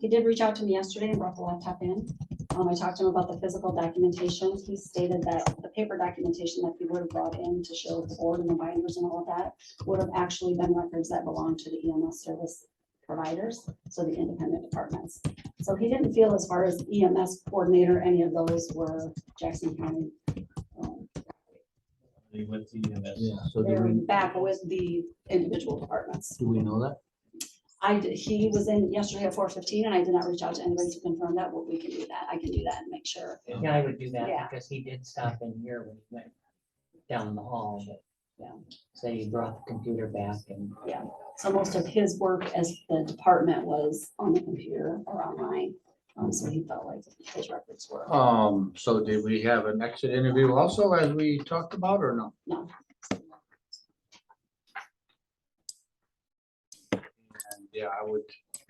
He did reach out to me yesterday and brought the laptop in. Um, I talked to him about the physical documentation. He stated that the paper documentation that he would have brought in to show the board and the binders and all of that would have actually been records that belong to the EMS service providers, so the independent departments. So he didn't feel as far as EMS coordinator, any of those were Jackson County. um, With the EMS. Yeah, so do They're we, back with the individual departments. do we know that? I, d- he was in yesterday at four fifteen and I did not reach out to anybody to confirm that, but we can do that. I can do that and make sure. Yeah, I would do Yeah. that because he did stop in here when he went down the hall, but yeah, so he brought the computer back and. Yeah. So most of his work as the department was on the computer or online. Um, so he felt like his records were, Um, so did we have an exit interview also as we talked about or no? no. And, Yeah, I would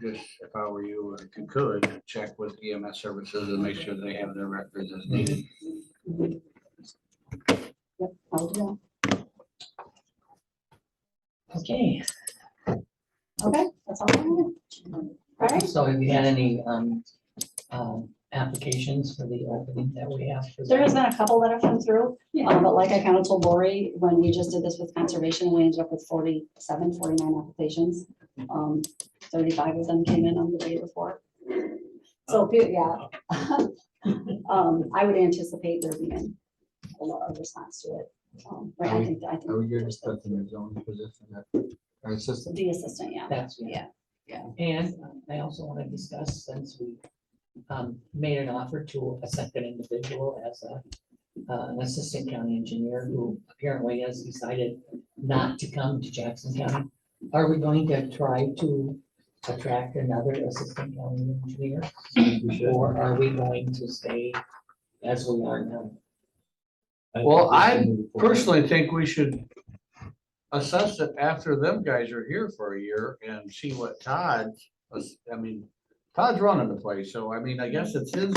just, if I were you, if you could, check with EMS services and make sure they have their records as needed. Yep, I'll do Okay, that. Okay, that's all. I have. All right. so have you had any um, um, applications for the opening that we have? for the- There has been a couple that have come through, um, but like I kind of told Lori, when we just did this with conservation, we ended up with 47, 49 applications. Um, thirty-five of them came in on the day before. So, pe- yeah. Um, I would anticipate there being a lot of response to it. Um, Right, I think, I Are we think good expecting a zoning position that, our assistant? the assistant, yeah. That's, yeah. Yeah, And um, I also want to discuss, since we um, made an offer to a second individual as a uh, an assistant county engineer who apparently has decided not to come to Jackson County. Are we going to try to attract another assistant county engineer? Or are we going to stay as we are now? Well, I personally think we should assess it after them guys are here for a year and see what Todd, I mean, Todd's running the place, so I mean, I guess it's his,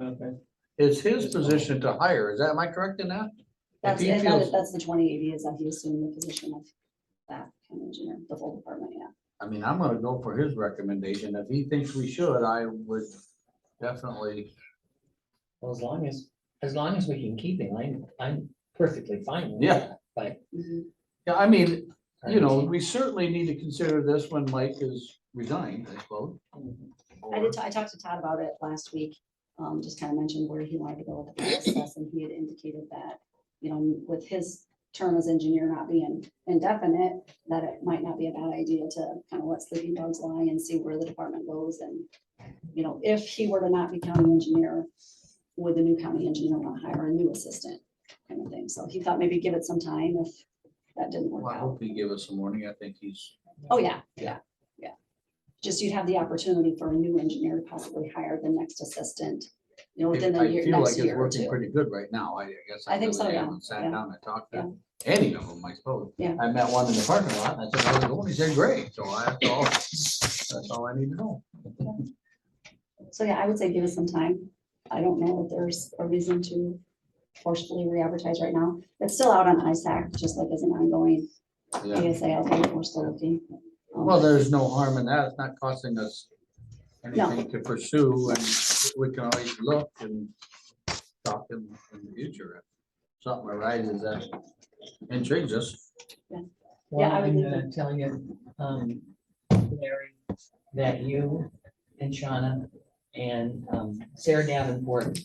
Okay. it's his position to hire. Is that, am I correct in that? If That's, he and that is- feels, that's the twenty eighty is that he assumed the position of that kind of engineer, the full department, yeah. I mean, I'm gonna go for his recommendation. If he thinks we should, I would definitely, Well, as long as, as long as we can keep him, I'm, I'm perfectly fine. with Yeah. that, But. um, Mhm. yeah, I mean, you know, we certainly need to consider this when Mike is resigned, I suppose. I did, ta- I talked to Todd about it last week, um, just kind of mentioned where he wanted to go with the process, and he had indicated that, you know, with his term as engineer not being indefinite, that it might not be a bad idea to kind of let sleeping dogs lie and see where the department goes, and, you know, if he were to not be county engineer, would the new county engineer want to hire a new assistant, kind of thing, so he thought maybe give it some time if that didn't Well, work I out. hope he gave us a warning. I think he's Oh, yeah, Yeah. yeah, yeah. Just you'd have the opportunity for a new engineer to possibly hire the next assistant, you know, It- within the I year, feel like next it's year or working two. Pretty good right now, I guess. I think so, really yeah, haven't Sat yeah, down and talked yeah. to any of them, I suppose. Yeah. I met one in the parking lot, and I said, how's it going? He said, great, so I, that's all, that's all I need to know. So, yeah, I would say give us some time. I don't know if there's a reason to forcefully re-advertise right now. It's still out on ISAC, just like as an ongoing Yeah. ASA, I think we're still looking. Um, Well, there's no harm in that, it's not costing us No. anything to pursue, and we can always look and talk in, in the future. if Something arises that intrigues us. Yeah, Well, I would I'm leave gonna tell you, um, Larry, that you and Shauna and, um, Sarah Davenport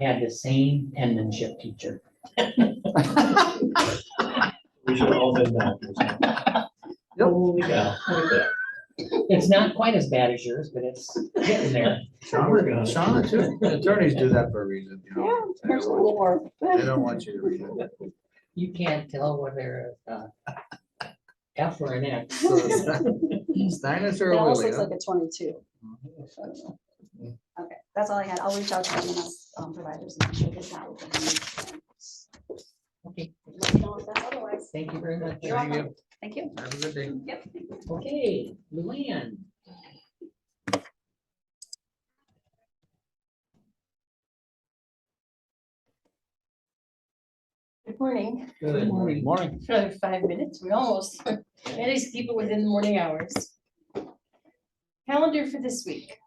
had the same penmanship teacher. We should all been that. Holy Yeah. It's not quite as bad as yours, but it's getting there. Shauna- Shauna, too, attorneys do that for a reason, you Yeah, know. They there's a don't little want- more. They don't want you to read it. You can't tell whether, uh, F or an X. Steiners It or almost Lily, looks huh? like a twenty-two. I don't know. Okay, that's all I had. I'll reach out to the EMS um, providers and make sure that that will be. Okay, let me know if that's otherwise. thank you very much. You're Thank welcome. Thank you. Have a good day. Yep. Okay, Luann. Good morning. Good morning. Morning. Another five minutes. We almost, at least keep it within the morning hours. Calendar for this week.